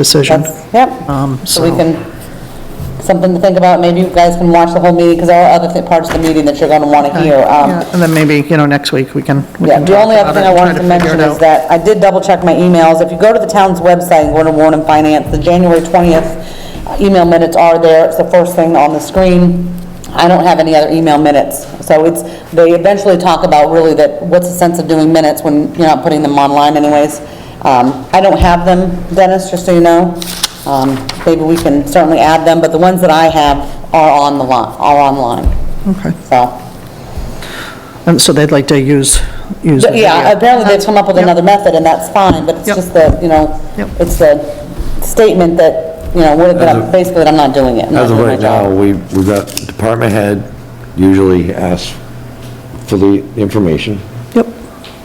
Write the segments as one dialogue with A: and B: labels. A: decision.
B: That's- Yep,
A: Um,
B: so we can, something to think about, maybe you guys can watch the whole meeting, because there are other thi- parts of the meeting that you're gonna wanna hear. um,
A: Yeah, And then maybe, you know, next week, we can, we
B: Yeah,
A: can
B: the
A: talk
B: only other
A: about it
B: thing I
A: and try
B: wanted
A: to
B: to
A: figure
B: mention
A: it
B: is
A: out.
B: that I did double-check my emails. If you go to the town's website and go to Warren and Finance, the January 20th email minutes are there. It's the first thing on the screen. I don't have any other email minutes. So it's, they eventually talk about really that, what's the sense of doing minutes when you're not putting them online anyways? Um, I don't have them, Dennis, just so you know. Um, Maybe we can certainly add them, but the ones that I have are on the line, are online.
A: Okay.
B: So,
A: And Um, so they'd like to use, use. the
B: yeah,
A: video.
B: apparently they've come up with another method, and that's fine, but it's
A: Yep.
B: just the, you know,
A: Yep.
B: it's the statement that, you know, what, that I'm- basically that I'm not doing it. I'm not
C: As of
B: doing my
C: right now,
B: job.
C: we, we've got, department head usually asks for the information.
A: Yep.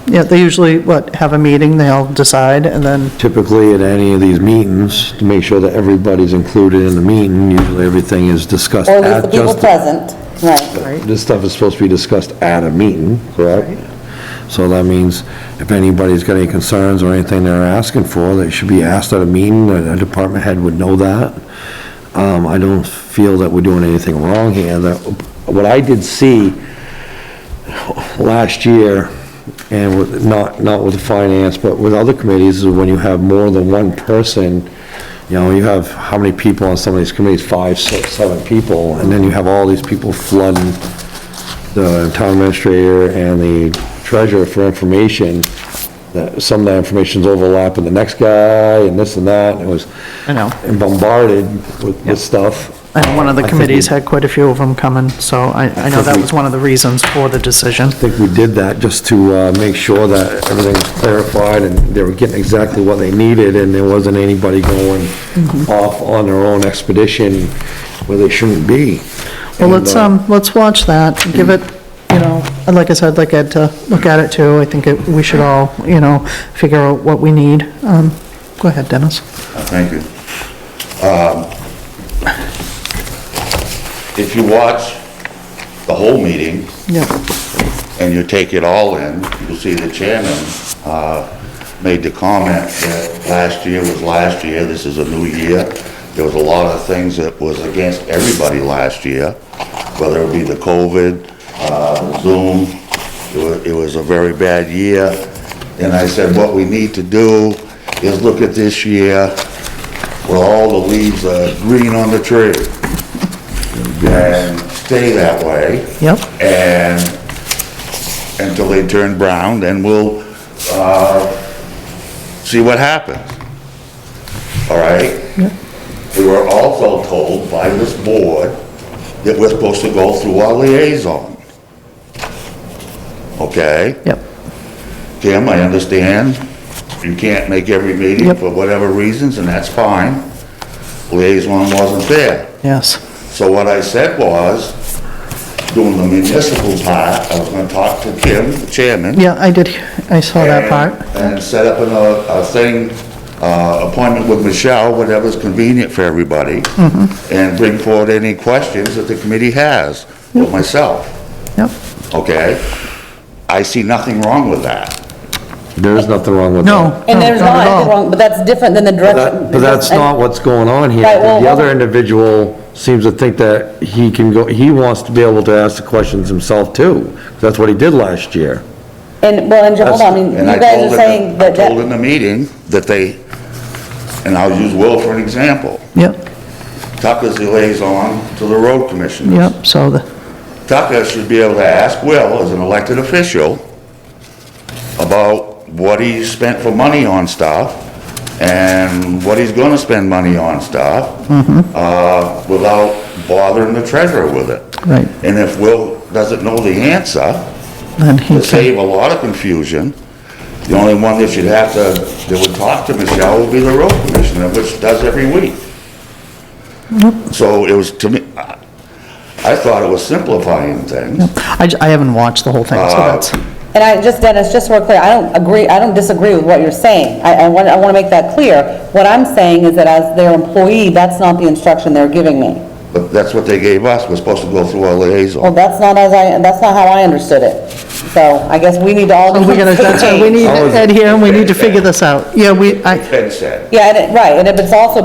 A: Yeah, they usually, what, have a meeting, they'll decide, and then,
C: Typically, at any of these meetings, to make sure that everybody's included in the meeting, usually everything is discussed
B: Or at least the
C: at
B: people
C: just,
B: present, right.
C: this stuff is supposed to be discussed at a meeting, correct? So that means if anybody's got any concerns or anything they're asking for, they should be asked at a meeting, and a department head would know that. Um, I don't feel that we're doing anything wrong here. That- What I did see last year, and with, not, not with the finance, but with other committees, is when you have more than one person, you know, you have how many people on some of these committees, five, six, seven people, and then you have all these people flooding the town administrator and the treasurer for information, that some of that information's overlapping the next guy, and this and that, and it was
A: I know.
C: bombarded with, with stuff.
A: and one of the
C: I think we-
A: committees had quite a few of them coming, so I, I know
C: think
A: that
C: we-
A: was one of the reasons for the decision.
C: I think we did that just to uh, make sure that everything was clarified and they were getting exactly what they needed and there wasn't anybody going off on their own expedition where they shouldn't be.
A: Well,
C: And,
A: let's,
C: uh,
A: um, let's watch that, give it, you know, and like I said, I'd like Ed to look at it too. I think it- we should all, you know, figure out what we need. Um, Go ahead, Dennis.
D: Thank you. Um, If you watch the whole meeting
A: Yeah.
D: and you take it all in, you'll see the chairman uh, made the comment that last year was last year, this is a new year. There was a lot of things that was against everybody last year, whether it be the COVID, uh, Zoom, it wa- it was a very bad year. And I said, what we need to do is look at this year where all the leaves are green on the tree and stay that way.
A: Yep.
D: And until they turn brown, then we'll, uh, see what happens. All right? We were also told by this board that we're supposed to go through our liaison. Okay?
A: Yep,
D: Tim, I understand you can't make every meeting
A: Yep.
D: for whatever reasons, and that's fine. Liaison wasn't there.
A: yes,
D: So what I said was, doing the municipal part, I was gonna talk to Kim, the chairman.
A: yeah, I did, I saw that
D: and-
A: part,
D: And set up a, a thing, uh, appointment with Michelle, whatever's convenient for everybody.
A: Mm-hmm.
D: And bring forward any questions that the committee has, with myself,
A: yep.
D: okay? I see nothing wrong with that.
C: There's nothing wrong with that.
A: No.
B: And there's
A: not
B: not,
A: Oh, at
B: anything
A: all.
B: wrong, but that's different than the direction.
C: That- But that's
B: and-
C: not what's going on here.
B: Right, well,
C: The other
B: well-
C: individual seems to think that he can go, he wants to be able to ask the questions himself too. That's what he did last year.
B: And, well, and, hold on, I mean, you
D: And I told
B: guys are
D: in the-
B: saying that,
D: I told in
B: that-
D: the meeting that they, and I'll use Will for an example.
A: Yep,
D: Tucker's the liaison to the road commissioners.
A: yep, so the,
D: Tucker should be able to ask Will, as an elected official, about what he spent for money on stuff and what he's gonna spend money on stuff, uh, without bothering the treasurer with it.
A: right,
D: And if Will doesn't know the answer,
A: then he
D: to
A: can,
D: save a lot of confusion, the only one that should have to, that would talk to Michelle would be the road commissioner, which does every week. So it was, to me, I I thought it was simplifying things.
A: I, j- I haven't watched the whole thing, so
C: Uh,
A: that's,
B: and I, just Dennis, just so we're clear, I don't agree, I don't disagree with what you're saying. I, I want, I want to make that clear. What I'm saying is that as their employee, that's not the instruction they're giving me.
D: But that's what they gave us, we're supposed to go through our
B: Well,
D: liaison.
B: that's not as I, that's not how I understood it. So I guess we need to all.
A: We're gonna, that's why Oh, we need
C: I was-
A: Ed here, and we need to figure this out. Yeah, we, Oh, I,
D: It's been said.
B: Yeah, and it- right, and if it's also